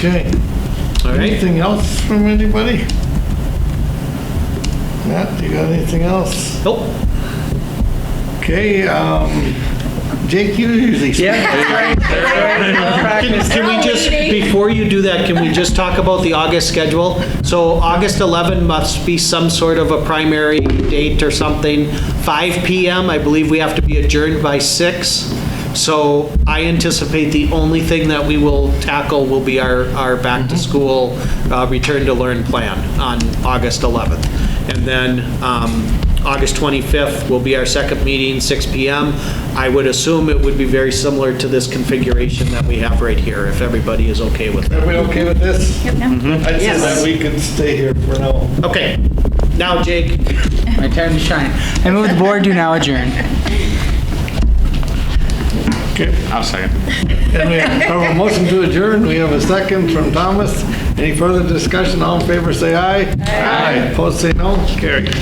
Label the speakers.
Speaker 1: Okay.
Speaker 2: All right,
Speaker 1: Anything else from anybody? Matt, you got anything else?
Speaker 2: nope.
Speaker 1: Okay, um, Jake, you usually speak.
Speaker 2: Can can we just, before you do that, can we just talk about the August schedule? So August 11 must be some sort of a primary date or something. 5 PM, I believe we have to be adjourned by 6. So I anticipate the only thing that we will tackle will be our, our back-to-school, uh, return-to-learn plan on August 11th. And then um, August 25th will be our second meeting, 6 PM. I would assume it would be very similar to this configuration that we have right here, if everybody is okay with that.
Speaker 1: Are we okay with this?
Speaker 2: Mm-hmm.
Speaker 1: I'd say that we can stay here for now.
Speaker 2: Okay, now Jake,
Speaker 3: My time to shine. I move the board do now adjourn.
Speaker 4: I'll second.
Speaker 1: And we have a motion to adjourn. We have a second from Thomas. Any further discussion? All in favor, say aye. Aye. Opposed, say no. Carried.